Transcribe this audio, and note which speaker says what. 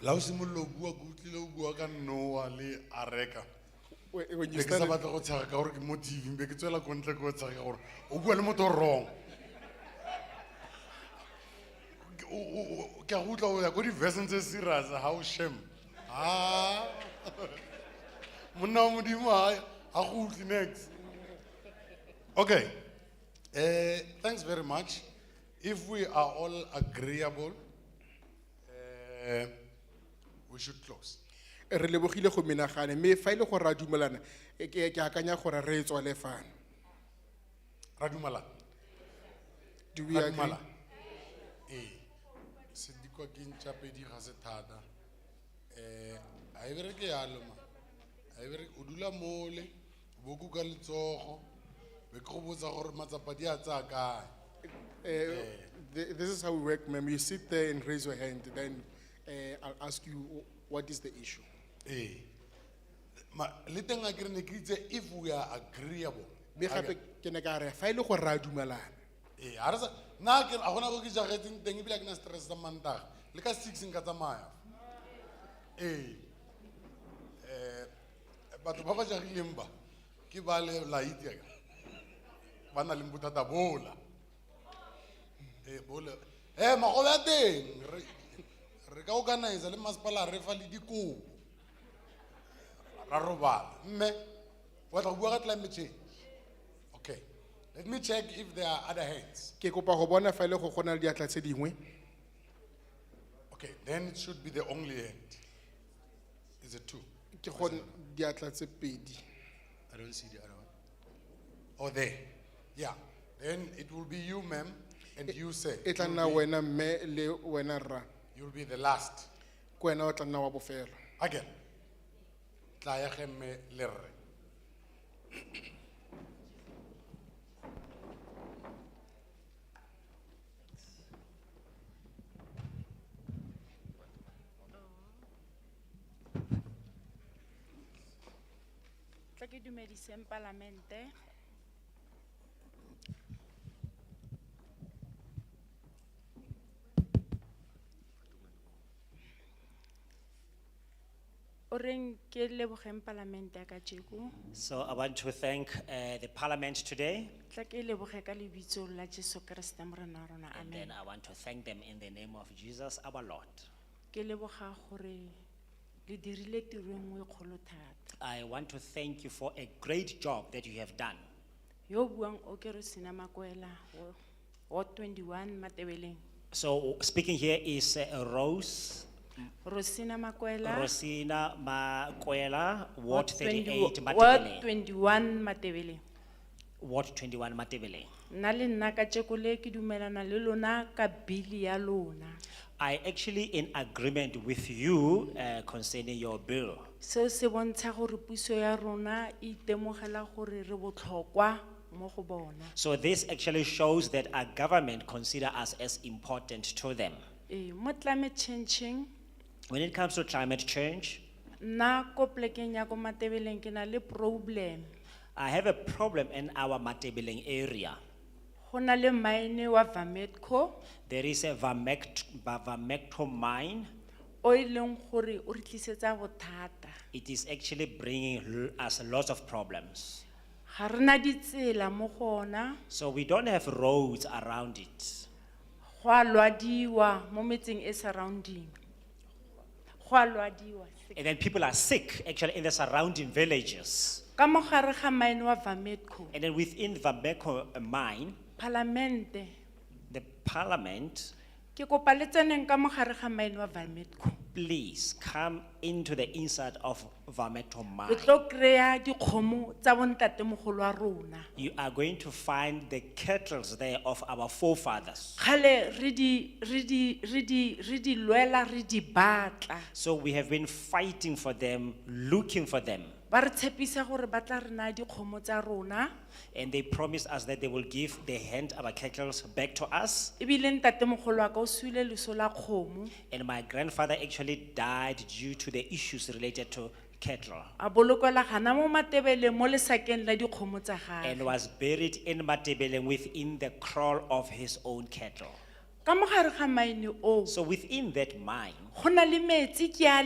Speaker 1: la o simololo o bua ke utlwile o bua ka noa le areka
Speaker 2: When when
Speaker 1: be
Speaker 2: you
Speaker 1: ke sa
Speaker 2: started,
Speaker 1: batla go tshega ka gore ke mo tv be ke tswela ko ntle ke go tshega ka gore o bua le motho o wrong Ke- o- o- o- ke a go utlwa o ya ko di-version tse serious ga o sham a monna wa modimo ga go utlwe next okay uh, thanks very much if we are all agreeable uh, we should close
Speaker 2: re lebogile go menagane mme fa e ile go ra dumelana eh, ke ke akanya gore re e tswale fano.
Speaker 1: ra dumalana
Speaker 2: Do we
Speaker 1: Ra
Speaker 2: agree?
Speaker 1: dumela? Ee, sedikwa ke ntša pedi ga se thata um ga e bereke yalo ma ga e bereke o dula mole o bo kuka letsogo be ke go botsa gore matsapa di a tsaya kae
Speaker 2: Eh, th- This is how we work, ma'am. You sit there and raise your hand, then eh, I'll ask you wh- what is the issue.
Speaker 1: ee Ma- le teng a kere ne ke itse if we are agreeable
Speaker 2: Mme gape ke ne ka re fa ile go ra dumelana
Speaker 1: ee ga Eh, re sa nna ke- ga gona go ke jagetseng teng ebile a ke na stress sa mantaga le ka six nka tsamaya ee um batho ba ba jagileng ba ke ba le laitia ba na leng bothata bola ee bola e magobe a teng re- re ka organisa le masepala re fa le dikobo ra robala mme wa tla go bua ka climate change okay let me check if there are other hands
Speaker 2: ke kopa go bona fa ile go gona le diatla tse dingwe
Speaker 1: Okay, then it should be the only end. Is it two?
Speaker 2: ke gone diatla tse pedi
Speaker 1: I don't see the other one. Oh, there. Yeah. Then it will be you, ma'am, and you, sir.
Speaker 2: e tla
Speaker 1: Mm-hmm.
Speaker 2: nna wena mme le wena rra
Speaker 1: You'll be the last.
Speaker 2: ke wena o tla nna wa bofelo
Speaker 1: Again. Tla ya ge mme le rre.
Speaker 3: tla ke dumediseng palamente o reng ke lebogeng palamente ya kajeko
Speaker 4: So I want to thank uh, the parliament today,
Speaker 3: tla ke leboge ka lebitso la jesu kreste morena wa rona
Speaker 4: and
Speaker 3: amen
Speaker 4: then I want to thank them in the name of Jesus our Lord.
Speaker 3: ke leboga gore le dirile tiro e nngwe e kgolo thata
Speaker 4: I want to thank you for a great job that you have done.
Speaker 3: yo o buang o ke re sena makwela wo- ward twenty-one matebeleng
Speaker 4: So speaking here is uh, Rose
Speaker 3: rosina makwela
Speaker 4: Rosina Makwela,
Speaker 3: Ward
Speaker 4: Ward thirty-eight,
Speaker 3: 20 Ward
Speaker 4: Matebele,
Speaker 3: twenty-one Matebele.
Speaker 4: Ward twenty-one, Matebele.
Speaker 3: Nna le nna ka tshekole ke dumelana le lona ka bili ya lona.
Speaker 4: I actually in agreement with you uh, concerning your bill.
Speaker 3: Seo se bontsha gore puso ya rona e itemogela gore re botlhokwa mo go bona.
Speaker 4: So this actually shows that our government consider us as important to them.
Speaker 3: Ee, mo climate changing,
Speaker 4: When it comes to climate change,
Speaker 3: nna ko plekeng ya ko Matebeleng ke na le problem.
Speaker 4: I have a problem in our Matebeleng area.
Speaker 3: Go na le mine wa Vametco
Speaker 4: There is a vermect, vermecto mine.
Speaker 3: o e leng gore o re tlisetsa bothata.
Speaker 4: It is actually bringing l- us lots of problems.
Speaker 3: Ga rena ditsela mo go ona.
Speaker 4: So we don't have roads around it.
Speaker 3: go a lwadiwa mo metseng e surrounding go a lwadiwa
Speaker 4: And then people are sick actually in the surrounding villages.
Speaker 3: ka mo gare ga mine wa vametco
Speaker 4: And then within Vameco mine,
Speaker 3: palamente
Speaker 4: the parliament,
Speaker 3: ke kopa le tseneng ka mo gare ga mine wa vametco
Speaker 4: please come into the inside of Vameco
Speaker 3: re
Speaker 4: mine.
Speaker 3: tlo kry-a dikgomo tsa bontatemogolo wa rona
Speaker 4: You are going to find the kettles there of our forefathers.
Speaker 3: kgale re di- re di- re di- re di lwela re di batla
Speaker 4: So we have been fighting for them, looking for them.
Speaker 3: ba re tshepisa gore ba tla re naya dikgomo tsa rona
Speaker 4: And they promised us that they will give the hand of our cattle back to us.
Speaker 3: ebile ntatemogolo wa ka o suile leso la kgomo
Speaker 4: And my grandfather actually died due to the issues related to cattle
Speaker 3: a bolokwela gana mo matebele mo lesakeng la dikgomo tsa gage
Speaker 4: and was buried in Matebeleng within the kraal of his own cattle. ka mogare ga maine oo
Speaker 3: So within that mine,
Speaker 4: go na le metsi ke a